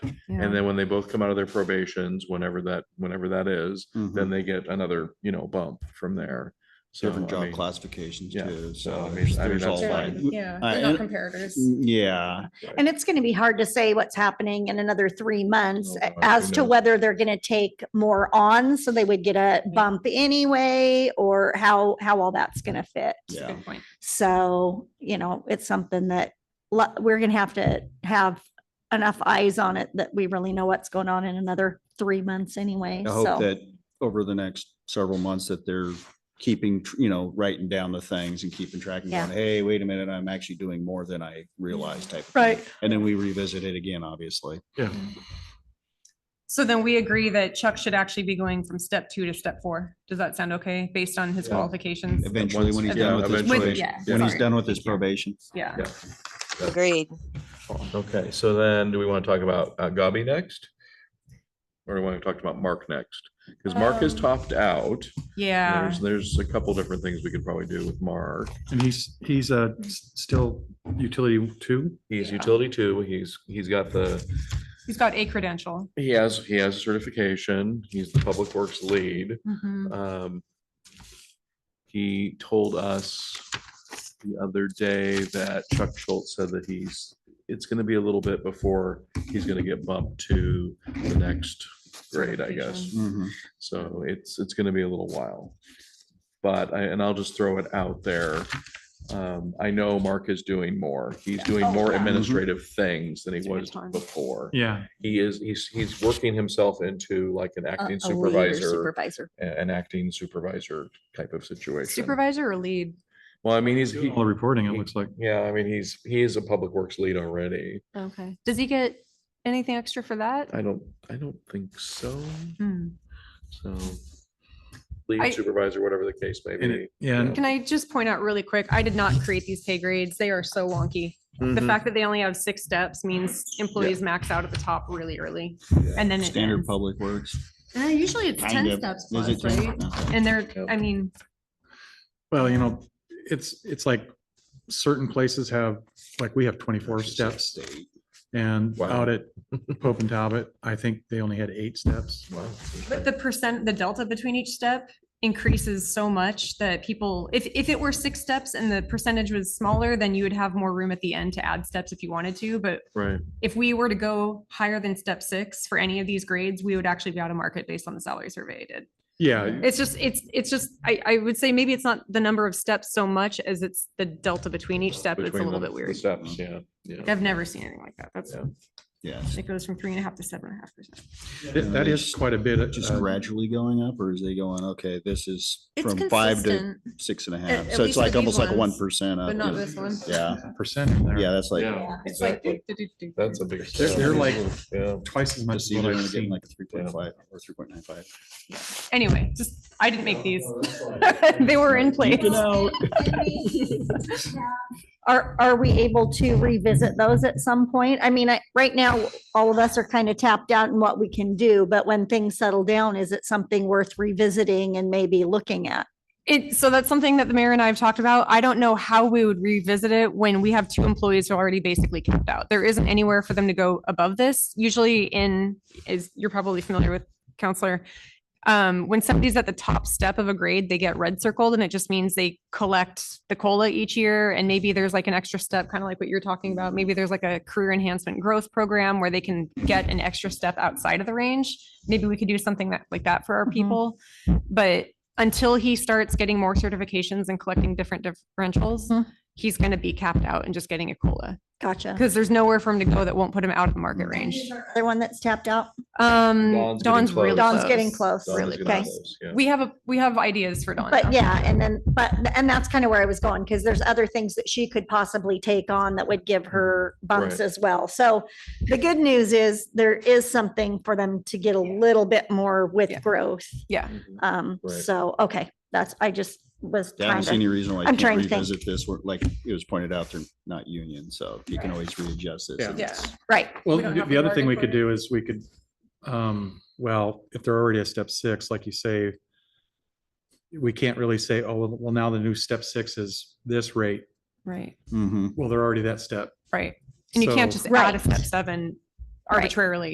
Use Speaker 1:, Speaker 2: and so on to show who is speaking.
Speaker 1: And then when they both come out of their probations, whenever that, whenever that is, then
Speaker 2: Mhm.
Speaker 1: they get another, you know, bump from there. So,
Speaker 2: Different
Speaker 1: I
Speaker 2: job
Speaker 1: mean,
Speaker 2: classifications
Speaker 1: yeah,
Speaker 2: too.
Speaker 1: so, I
Speaker 2: So
Speaker 1: mean,
Speaker 2: there's
Speaker 1: I mean,
Speaker 2: there's all
Speaker 1: that's
Speaker 2: that.
Speaker 1: fine.
Speaker 3: Yeah,
Speaker 2: Uh,
Speaker 3: they're not
Speaker 2: and-
Speaker 3: comparators.
Speaker 2: Yeah,
Speaker 4: And it's going to be hard to say what's happening in another three months
Speaker 1: Oh, God, who
Speaker 4: as to
Speaker 1: knows?
Speaker 4: whether they're going to take more on. So they would get
Speaker 3: Yeah.
Speaker 4: a bump anyway, or how, how all that's going to fit.
Speaker 3: That's a
Speaker 2: yeah.
Speaker 3: Good point.
Speaker 4: So, you know, it's something that lo- we're going to have to have enough eyes on it that we really know what's going on in another three months anyway.
Speaker 2: I hope
Speaker 4: So
Speaker 2: that over the next several months that they're keeping, tr- you know, writing down the things and keeping track and
Speaker 4: Yeah.
Speaker 2: going, hey, wait a minute, I'm actually doing more than I realized type. of thing.
Speaker 4: Right.
Speaker 2: And then we revisit it again, obviously.
Speaker 3: So then we agree that Chuck should actually be going from step two to step four. Does that sound okay, based on his
Speaker 1: Yeah.
Speaker 3: qualifications?
Speaker 2: Eventually, when he's
Speaker 1: yeah,
Speaker 2: done with his,
Speaker 1: eventually.
Speaker 3: With,
Speaker 2: probation-
Speaker 3: yeah.
Speaker 2: when he's
Speaker 3: sorry.
Speaker 2: done with his probation.
Speaker 3: Yeah.
Speaker 1: Yeah.
Speaker 5: Agreed.
Speaker 1: Okay, so then do we want to talk about uh, Gabi next? Or do we want to talk about Mark next? Because Mark has
Speaker 3: Um,
Speaker 1: topped out.
Speaker 3: Yeah.
Speaker 1: There's, there's a couple different things we could probably do with Mark.
Speaker 6: And he's, he's uh s- still utility two.
Speaker 1: He's
Speaker 3: Yeah.
Speaker 1: utility two. He's, he's got the,
Speaker 3: He's got a credential.
Speaker 1: he has, he has a certification. He's the public works lead.
Speaker 3: Mhm.
Speaker 1: Um, he told us the other day that Chuck Schultz said that he's, it's gonna be a little bit before he's gonna get bumped to the next grade, I guess.
Speaker 3: Certification.
Speaker 2: Mhm.
Speaker 1: So it's, it's gonna be a little while. But I, and I'll just throw it out there. Um, I know Mark is doing more. He's doing
Speaker 4: Oh,
Speaker 1: more
Speaker 4: yeah.
Speaker 1: administrative things than he
Speaker 3: Doing a
Speaker 1: was
Speaker 3: ton.
Speaker 1: before.
Speaker 6: Yeah.
Speaker 1: He is, he's, he's working himself into like an
Speaker 4: a-
Speaker 1: acting
Speaker 4: a leader
Speaker 1: supervisor
Speaker 4: Supervisor.
Speaker 1: a- an acting supervisor type of situation.
Speaker 3: Supervisor or lead?
Speaker 1: Well, I mean, he's, he-
Speaker 6: All the reporting, it looks like.
Speaker 1: yeah, I mean, he's, he is a public works lead already.
Speaker 3: Okay. Does he get anything extra for that?
Speaker 1: I don't, I don't think so,
Speaker 3: Hmm.
Speaker 1: so.
Speaker 3: I-
Speaker 1: Lead supervisor, whatever the case may
Speaker 6: And
Speaker 1: be.
Speaker 6: it- yeah, and-
Speaker 3: Can I just point out really quick? I did not create these pay grades. They are so wonky. The
Speaker 2: Mm-hmm.
Speaker 1: Mhm.
Speaker 3: fact that they only have six steps means employees max out at the top really early. And then it
Speaker 2: Standard
Speaker 3: ends.
Speaker 2: public works.
Speaker 3: Uh, Usually it's
Speaker 2: Kind
Speaker 3: ten
Speaker 2: of.
Speaker 3: steps
Speaker 2: Is
Speaker 3: plus,
Speaker 2: it 10?
Speaker 3: right?
Speaker 2: No.
Speaker 3: And they're,
Speaker 1: Yep.
Speaker 3: I mean,
Speaker 6: Well, you know, it's, it's like certain places have, like we have twenty-four
Speaker 2: Actually, it's
Speaker 6: steps
Speaker 2: state.
Speaker 6: and
Speaker 1: Wow.
Speaker 6: out at Pope and Talbot, I think they only had eight steps.
Speaker 1: Wow,
Speaker 3: but the percent, the delta between each step increases so much that people, if, if it were six steps and the percentage was smaller, then you would have more room at the end to add steps if you wanted to. But
Speaker 1: Right,
Speaker 3: if we were to go higher than step six for any of these grades, we would actually be out of market based on the salary survey I did.
Speaker 6: Yeah,
Speaker 3: It's just, it's, it's just, I, I would say maybe it's not the number of steps so much as it's the delta between each step. It's a
Speaker 1: between
Speaker 3: little
Speaker 1: the-
Speaker 3: bit
Speaker 1: the
Speaker 3: weird.
Speaker 1: Steps, yeah, yeah.
Speaker 3: I've never seen anything like that. That's,
Speaker 1: Yeah.
Speaker 2: Yes.
Speaker 3: it goes from three and a half to seven and a half percent.
Speaker 6: that that is quite a bit.
Speaker 2: Just
Speaker 6: uh,
Speaker 2: gradually going up or is they going, okay, this is
Speaker 3: It's
Speaker 2: from five to
Speaker 3: consistent,
Speaker 2: six and a half?
Speaker 3: at
Speaker 2: So it's
Speaker 3: least
Speaker 2: like
Speaker 3: with these
Speaker 2: almost like a one
Speaker 3: ones,
Speaker 2: percent up.
Speaker 3: but not
Speaker 2: yeah.
Speaker 3: this one.
Speaker 2: Yeah,
Speaker 6: Percent in there.
Speaker 2: yeah, that's like.
Speaker 1: Yeah,
Speaker 3: It's like.
Speaker 1: exactly. That's a big.
Speaker 6: They're,
Speaker 1: step.
Speaker 6: they're like
Speaker 1: Yeah.
Speaker 6: twice as much. as
Speaker 2: Just either
Speaker 6: what I've
Speaker 2: gonna get
Speaker 6: seen.
Speaker 2: like a three point five or three point nine five.
Speaker 3: Anyway, just, I didn't make these. They were in place.
Speaker 4: Are, are we able to revisit those at some point? I mean, I, right now, all of us are kind of tapped out in what we can do, but when things settle down, is it something worth revisiting and maybe looking at?
Speaker 3: It, so that's something that the mayor and I have talked about. I don't know how we would revisit it when we have two employees who are already basically capped out. There isn't anywhere for them to go above this. Usually in, is, you're probably familiar with counselor. Um, when somebody's at the top step of a grade, they get red circled and it just means they collect the COLA each year. And maybe there's like an extra step, kind of like what you're talking about. Maybe there's like a career enhancement growth program where they can get an extra step outside of the range. Maybe we could do something that, like that for our
Speaker 4: Mhm.
Speaker 3: people. But until he starts getting more certifications and collecting different differentials,
Speaker 4: Mhm.
Speaker 3: he's going to be capped out and just getting a COLA
Speaker 4: Gotcha.
Speaker 3: because there's nowhere for him to go that won't put him out of the market range.
Speaker 4: Other one that's tapped out?
Speaker 3: Um,
Speaker 1: Dawn's getting
Speaker 3: Dawn's really
Speaker 1: close.
Speaker 4: Dawn's getting
Speaker 3: close.
Speaker 4: close.
Speaker 1: Don's
Speaker 3: Really
Speaker 1: gonna have
Speaker 4: close.
Speaker 1: those, yeah.
Speaker 3: We have a, we have ideas for Dawn. now.
Speaker 4: But yeah, and then, but, and that's kind of where I was going, because there's other things that she could possibly take on that would give her bumps
Speaker 1: Right.
Speaker 4: as well. So the good news is there is something for them to get a little bit more
Speaker 3: Yeah.
Speaker 4: with growth.
Speaker 1: Mhm.
Speaker 4: Um,
Speaker 1: Right.
Speaker 4: so, okay, that's, I just was
Speaker 2: Yeah, I
Speaker 4: trying
Speaker 2: don't see any
Speaker 4: to,
Speaker 2: reason why
Speaker 4: I'm
Speaker 2: you can't
Speaker 4: trying to think.
Speaker 2: revisit this, We're- like it was pointed out, they're not union, so you can always readjust this.
Speaker 1: Yeah.
Speaker 2: and
Speaker 3: Yeah.
Speaker 2: it's-
Speaker 4: right,
Speaker 6: Well,
Speaker 3: don't
Speaker 6: the
Speaker 3: have to
Speaker 6: the other thing
Speaker 3: bargain
Speaker 6: we
Speaker 3: for
Speaker 6: could
Speaker 3: it.
Speaker 6: do is we could, um, well, if they're already a step six, like you say, we can't really say, oh, well- well, now the new step six is this rate.
Speaker 3: Right,
Speaker 2: Mhm.
Speaker 6: Well, they're already that step.
Speaker 3: right. And you can't
Speaker 6: So-
Speaker 3: just add a
Speaker 4: Right.
Speaker 3: step seven
Speaker 4: Right.
Speaker 3: arbitrarily.